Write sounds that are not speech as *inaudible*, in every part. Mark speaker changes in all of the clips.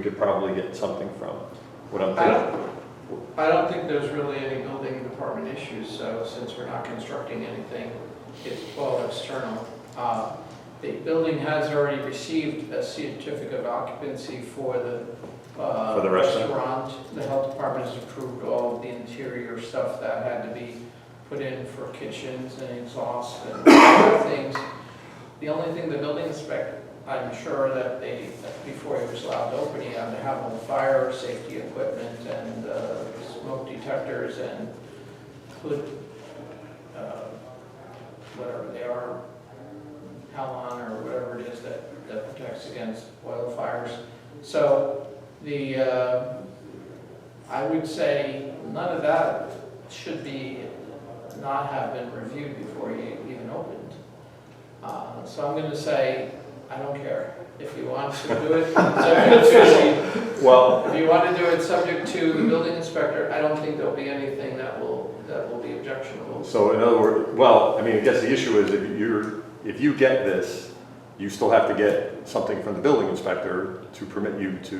Speaker 1: we could probably get something from. What I'm
Speaker 2: I
Speaker 1: thinking.
Speaker 2: don't, I don't think there's really any building department issues, so since we're not constructing anything, it's all external. Uh, The building has already received a certificate of occupancy for the uh,
Speaker 1: For the restaurant?
Speaker 2: The health department has approved all of the interior stuff that had to be put in for kitchens and exhaust and *coughs* other things. The only thing the building inspector, I'm sure that they, that before he was allowed to open, he had to have all fire safety equipment and uh, smoke detectors and hood, uh, whatever they are, halon or whatever it is that, that protects against oil fires. So the, uh, I would say none of that should be, not have been reviewed before you even opened. Uh, So I'm going to say, I don't care. If you want to do it, subject to,
Speaker 1: Well,
Speaker 2: if you want to do it subject to the building inspector, I don't think there'll be anything that will, that will be objectionable.
Speaker 1: so in other words, well, I mean, I guess the issue is if you're, if you get this, you still have to get something from the building inspector to permit you to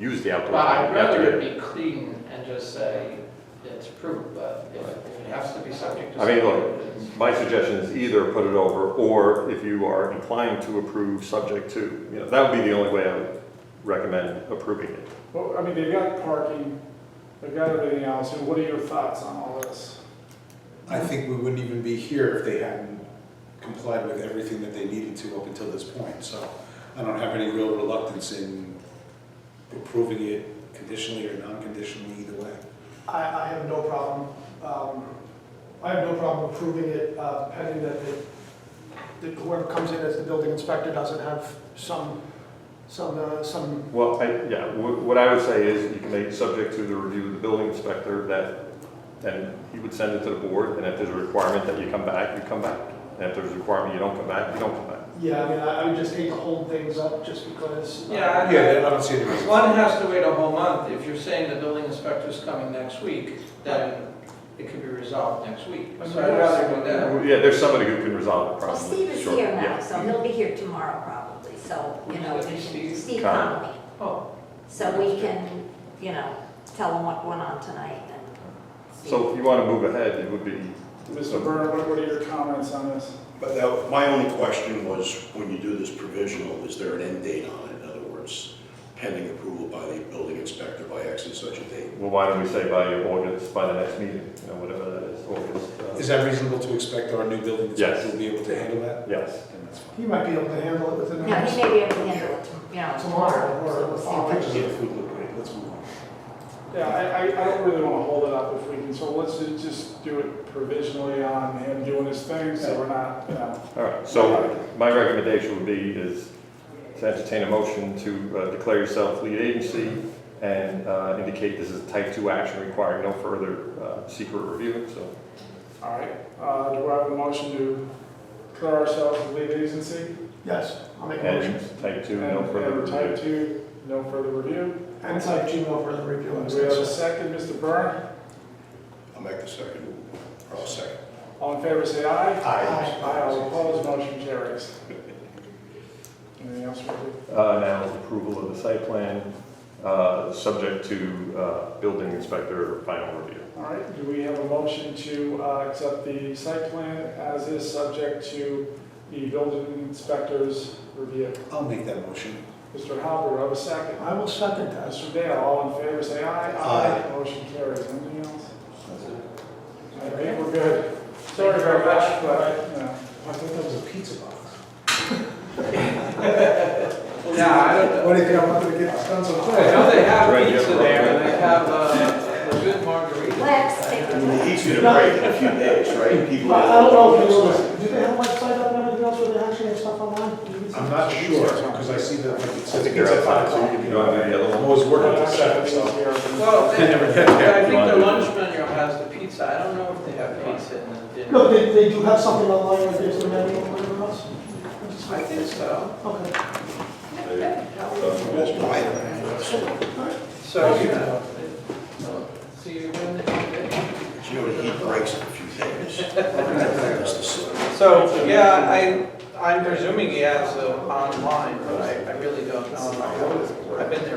Speaker 1: use the outdoor.
Speaker 2: But I'd
Speaker 1: dining. You have to
Speaker 2: rather
Speaker 1: get-
Speaker 2: it be clean and just say it's approved, but if if it has to be subject to.
Speaker 1: I mean, look,
Speaker 2: something, it's-
Speaker 1: My suggestion is either put it over, or if you are inclined to approve, subject to. You know, that would be the only way I would recommend approving it.
Speaker 3: Well, I mean, they've got parking, they've got everything else, and what are your thoughts on all this?
Speaker 4: I think we wouldn't even be here if they hadn't complied with everything that they needed to up until this point. So I don't have any real reluctance in approving it conditionally or non-conditionally either way.
Speaker 5: I, I have no problem, um, I have no problem approving it, uh, pending that the, that whoever comes in as the building inspector doesn't have some, some, uh, some,
Speaker 1: Well, I, yeah, wh- what I would say is you can make subject to the review of the building inspector that, and he would send it to the board, and if there's a requirement that you come back, you come back. And if there's a requirement you don't come back, you don't come back.
Speaker 5: yeah, I mean, I, I would just hate to hold things up just because. uh,
Speaker 2: Yeah, I-
Speaker 4: Yeah, I don't see any reason.
Speaker 2: One has to wait a whole month. If you're saying the building inspector's coming next week, then it could be resolved next week. So I'd rather do that.
Speaker 1: Yeah, there's somebody who can resolve the
Speaker 6: Well,
Speaker 1: problem.
Speaker 6: Steve is
Speaker 1: Sure,
Speaker 6: here now,
Speaker 1: yeah.
Speaker 6: so he'll be here tomorrow probably, so, you know, we can,
Speaker 2: Steve?
Speaker 6: Steve
Speaker 1: Connolly.
Speaker 6: Connolly.
Speaker 2: Oh,
Speaker 6: So we can, you know, tell him what went on tonight and. see.
Speaker 1: So if you want to move ahead, it would be.
Speaker 3: Mr. Byrne, what- what are your comments on this?
Speaker 7: But that, my only question was, when you do this provisional, is there an end date on it? In other words, pending approval by the building inspector by X and such a date?
Speaker 1: Well, why don't we say by August, by the next meeting, you know, whatever that is,
Speaker 4: Is
Speaker 1: August. uh,
Speaker 4: that reasonable to expect our new building inspector
Speaker 1: Yes.
Speaker 4: will be able to handle that?
Speaker 1: Yes.
Speaker 4: Then that's fine.
Speaker 5: He might be able to handle it within the
Speaker 6: No, he
Speaker 5: next.
Speaker 6: may be able to handle it, tom- you know, tomorrow, so we'll see
Speaker 4: Our
Speaker 6: what.
Speaker 4: pictures of the food look great, let's move on.
Speaker 3: Yeah, I, I, I don't really wanna hold it up if we can, so let's ju- just do it provisionally on him doing his thing, so we're not, you know.
Speaker 1: All right, so my recommendation would be is to entertain a motion to uh, declare yourself lead agency and uh, indicate this is a type two action requiring no further uh, secret review, so.
Speaker 3: All right, uh, do I have a motion to declare ourselves the lead agency?
Speaker 5: Yes, I'll make a
Speaker 1: And
Speaker 5: motion.
Speaker 1: type two,
Speaker 3: And
Speaker 1: no further
Speaker 3: and Type
Speaker 1: review.
Speaker 3: two, no further review.
Speaker 5: And type G over the
Speaker 3: Do
Speaker 5: review. and
Speaker 3: we have a
Speaker 5: discussion.
Speaker 3: second, Mr. Byrne?
Speaker 7: I'll make the second, or I'll second.
Speaker 3: All in favor, say aye.
Speaker 5: Aye.
Speaker 3: Aye, all opposed, motion carries. Anything else, Richard?
Speaker 1: Uh, Now is approval of the site plan, uh, subject to uh, building inspector final review.
Speaker 3: All right, do we have a motion to uh, accept the site plan as is, subject to the building inspector's review?
Speaker 4: I'll make that motion.
Speaker 3: Mr. Halper, have a second.
Speaker 5: I will second that.
Speaker 3: Mr. Dale, all in favor, say aye.
Speaker 4: Aye.
Speaker 3: Motion carries. Anything else? I think we're good. Sorry very much, but, uh, you know.
Speaker 4: I thought that was a pizza box.
Speaker 2: yeah, I don't know.
Speaker 4: What do you think I'm not gonna get this done so quick?
Speaker 2: I know they have
Speaker 1: Right, yeah,
Speaker 2: pizza
Speaker 1: right.
Speaker 2: there and they have uh, a good margarita.
Speaker 6: Let's take the
Speaker 7: Well, He's gonna break in a few days, right? People-
Speaker 5: But I don't know if you noticed, do they have a website up and everything else where they actually have stuff online? Do you-
Speaker 4: I'm not sure, because I see that, like, it
Speaker 1: I
Speaker 4: says
Speaker 1: think they're
Speaker 4: pizza
Speaker 1: outside,
Speaker 4: box.
Speaker 1: so you can go on to the other
Speaker 4: I'm
Speaker 1: one.
Speaker 4: always working at seven, so.
Speaker 2: Well,
Speaker 3: Well,
Speaker 2: *laughs* they-
Speaker 4: never get there.
Speaker 2: I think the
Speaker 1: Mine.
Speaker 2: lunch menu has the pizza. I don't know if they have pizza in the
Speaker 5: No,
Speaker 2: dinner.
Speaker 5: they, they do have something online, like there's a menu or whatever else?
Speaker 2: I think so.
Speaker 5: Okay.
Speaker 2: So, you know, they- see you in the.
Speaker 7: You know, he breaks in a few *laughs* days. That's the sort of-
Speaker 2: So, yeah, I, I'm presuming he has uh, online, but I, I really don't know. I've been there